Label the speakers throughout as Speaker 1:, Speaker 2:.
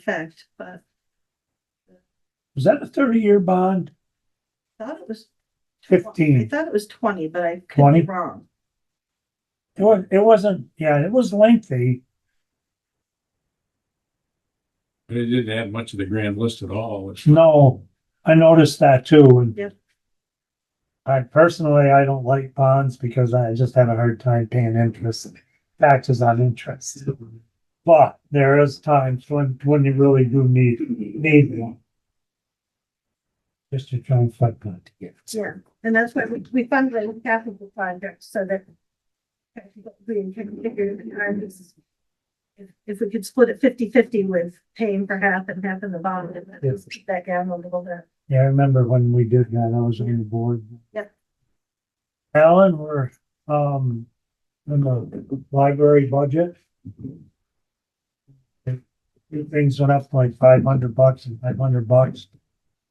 Speaker 1: effect, but
Speaker 2: Was that a thirty-year bond?
Speaker 1: I thought it was.
Speaker 2: 15.
Speaker 1: I thought it was twenty, but I could be
Speaker 2: 20?
Speaker 1: wrong.
Speaker 2: It was, it wasn't, yeah, it was lengthy.
Speaker 3: But it didn't add much of the grand list at all. It's-
Speaker 2: No, I noticed that too and.
Speaker 1: Yep.
Speaker 2: I personally, I don't like bonds because I just have a hard time paying interest, taxes on interest. But there is times when, when you really do need, need one. Just to try and fight that.
Speaker 1: Yeah, and that's why we, we fundraise capital projects so that. We can figure the time is- If, if we could split it 50-50 with paying for half and half in the bond and then
Speaker 2: Yes.
Speaker 1: keep that down a little bit.
Speaker 2: Yeah, I remember when we did that, I was on the board.
Speaker 1: Yep.
Speaker 2: Alan, we're, um, in the library budget. Things went up like five hundred bucks and five hundred bucks.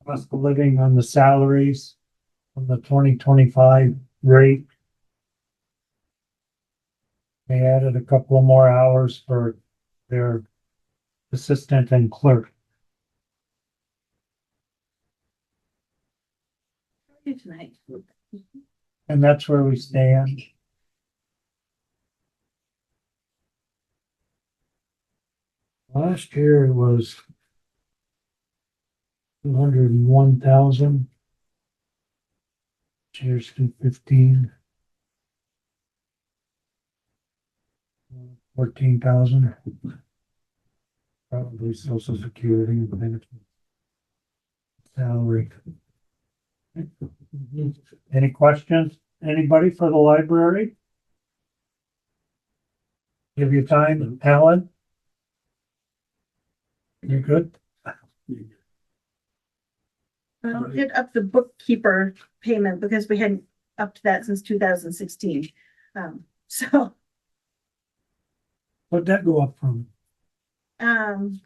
Speaker 2: Cost of living on the salaries on the twenty twenty-five rate. They added a couple of more hours for their assistant and clerk.
Speaker 1: You tonight.
Speaker 2: And that's where we stand. Last year it was two hundred and one thousand. This year's two fifteen. Fourteen thousand. Probably social security and benefits. Salary. Any questions? Anybody for the library? Give you time, Alan? You good?
Speaker 1: Well, hit up the bookkeeper payment because we hadn't upped that since two thousand sixteen. Um, so,
Speaker 2: What'd that go up from?
Speaker 1: um.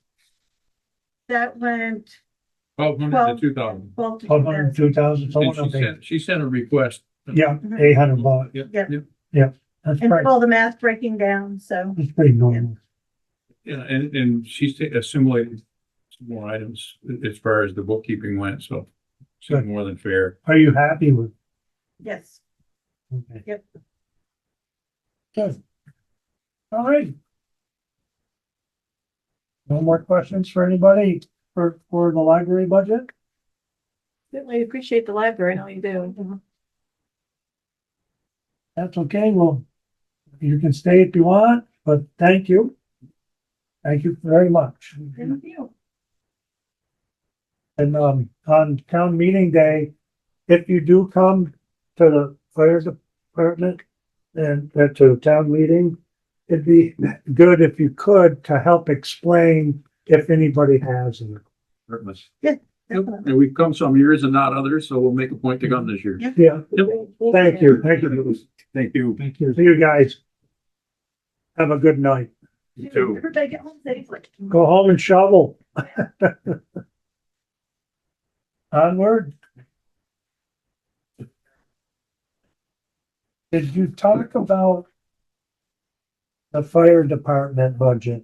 Speaker 1: That went
Speaker 3: Twelve hundred
Speaker 1: twelve.
Speaker 3: to two thousand.
Speaker 1: Twelve to
Speaker 2: Um, Twelve
Speaker 1: 2,000.
Speaker 2: hundred, two thousand,
Speaker 3: And
Speaker 2: someone
Speaker 3: she
Speaker 2: up there?
Speaker 3: sent, she sent a request.
Speaker 2: Yeah, eight hundred bucks.
Speaker 3: Yeah,
Speaker 1: Yeah.
Speaker 3: yeah,
Speaker 2: That's
Speaker 1: And
Speaker 2: pretty,
Speaker 1: all the math breaking down, so.
Speaker 2: that's pretty normal.
Speaker 3: yeah, and, and she's ta- assimilated some more items as far as the bookkeeping went, so
Speaker 2: Good.
Speaker 3: it's more than fair.
Speaker 2: Are you happy with?
Speaker 1: Yes,
Speaker 2: okay.
Speaker 1: Yep.
Speaker 2: Good. All right. No more questions for anybody for, for the library budget?
Speaker 4: Certainly appreciate the library and all you do.
Speaker 2: That's okay, well, you can stay if you want, but thank you. Thank you very much.
Speaker 3: Mm-hmm.
Speaker 1: thank you.
Speaker 2: And, um, on town meeting day, if you do come to the fire department and uh, to the town meeting, it'd be good if you could to help explain if anybody has. it.
Speaker 3: Yep, And we've come some years and not others, so we'll make a point to come this year.
Speaker 2: Yeah,
Speaker 3: Yep.
Speaker 2: thank you, thank you.
Speaker 3: Thank you.
Speaker 2: Thank you. See you guys. Have a good night.
Speaker 3: You too.
Speaker 1: Everybody get home safely.
Speaker 2: Go home and shovel. Onward. Did you talk about the fire department budget?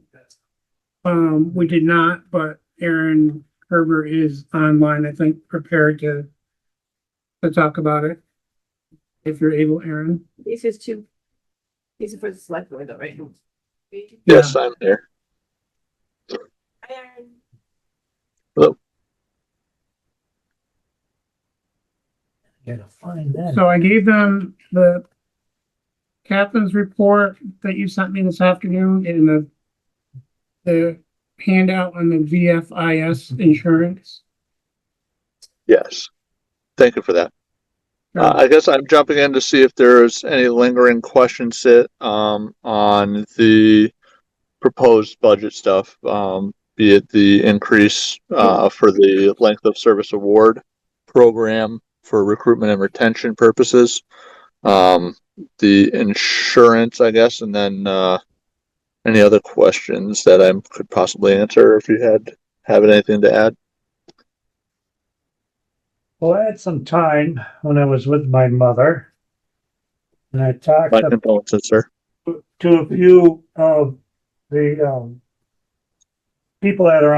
Speaker 5: Um, we did not, but Aaron Herbert is online, I think, prepared to to talk about it. If you're able, Aaron.
Speaker 4: These is two. These are for the select board though, right?
Speaker 6: Yes, I'm here.
Speaker 2: Gotta find that.
Speaker 5: So I gave them the captain's report that you sent me this afternoon and the the handout on the VFIS insurance.
Speaker 6: Yes. Thank you for that. Uh, I guess I'm jumping in to see if there's any lingering questions that, um, on the proposed budget stuff, um, be it the increase, uh, for the length of service award program for recruitment and retention purposes, um, the insurance, I guess, and then, uh, any other questions that I could possibly answer if you had, have anything to add?
Speaker 2: Well, I had some time when I was with my mother. And I talked
Speaker 6: My
Speaker 2: about
Speaker 6: condolences, sir.
Speaker 2: to a few of the um people that are